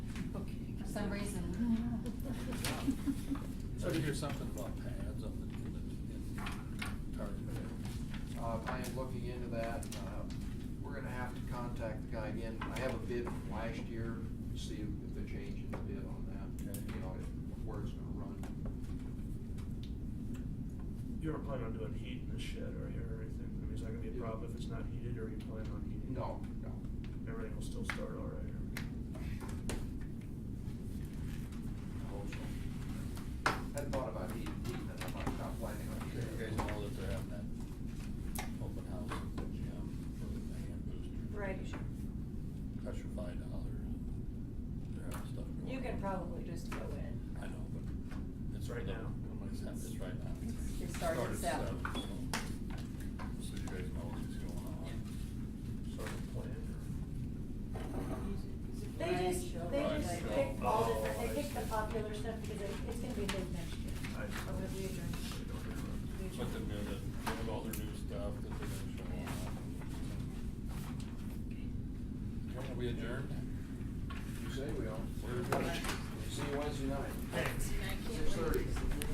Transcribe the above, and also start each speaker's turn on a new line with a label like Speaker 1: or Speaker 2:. Speaker 1: some reason.
Speaker 2: So I hear something about pads on the, in the target.
Speaker 3: Uh, I am looking into that. Uh, We're gonna have to contact the guy again. I have a bid from last year, see if if they're changing the bid on that,
Speaker 2: Okay.
Speaker 3: you know, if- where it's gonna run.
Speaker 4: You ever plan on doing heat in this shed right here or anything? I mean, is that gonna be a problem if it's not heated or you plan on heating? it?
Speaker 3: No, no.
Speaker 4: Everything will still start all right.
Speaker 3: I hope so. Hadn't thought about heat, heat, and I'm not not planning on
Speaker 2: You guys
Speaker 3: heating.
Speaker 2: know that they're having that open house at the gym for the hand booster.
Speaker 5: Right.
Speaker 2: That's your five dollar. They're having stuff. going
Speaker 5: You can
Speaker 2: on.
Speaker 5: probably just go in.
Speaker 2: I know, but it's right now. It's happening, it's right now.
Speaker 1: It started at seven.
Speaker 2: so- So you guys know what's going on.
Speaker 4: Sort of plan or?
Speaker 5: They just, they
Speaker 2: Right,
Speaker 5: just
Speaker 2: so-
Speaker 5: pick all different,
Speaker 4: Oh, I
Speaker 5: they pick the
Speaker 4: see.
Speaker 5: popular stuff because it, it's gonna be big next year.
Speaker 4: I see.
Speaker 5: Or whatever you drink.
Speaker 4: They don't interrupt.
Speaker 5: You
Speaker 2: But then
Speaker 5: drink.
Speaker 2: they have all their new stuff that they're gonna show off. When we adjourned?
Speaker 3: You say we all.
Speaker 2: We're adjourned.
Speaker 3: See you Wednesday night.
Speaker 4: Thanks.
Speaker 3: Six thirty.